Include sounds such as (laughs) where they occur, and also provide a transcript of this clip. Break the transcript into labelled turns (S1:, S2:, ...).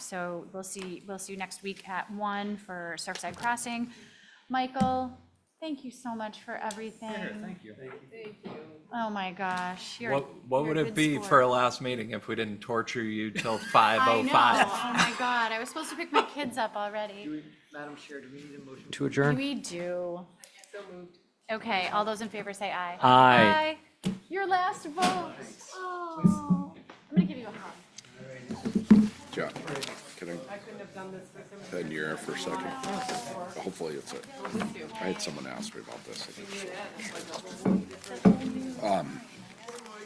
S1: So we'll see, we'll see you next week at one for Surfside Crossing. Michael, thank you so much for everything.
S2: you.
S1: Oh my gosh, you're.
S2: What, what
S1: you're a
S2: would it
S1: good
S2: be
S1: sport.
S2: for a last meeting if we didn't torture
S1: (laughs)
S2: you till
S1: I know.
S2: 5:05?
S1: Oh my God, I was supposed to pick my kids up already.
S3: we, Madam Chair, do we need a motion? To adjourn?
S1: We do. Okay, all those in favor say aye.
S2: Aye.
S1: Aye. Your last vote. Oh, I'm gonna give you a hug.
S4: Yeah, kidding. I couldn't have done this with him. Then you're Oh, for a second. Hopefully it's it. I had someone ask me about this. Um,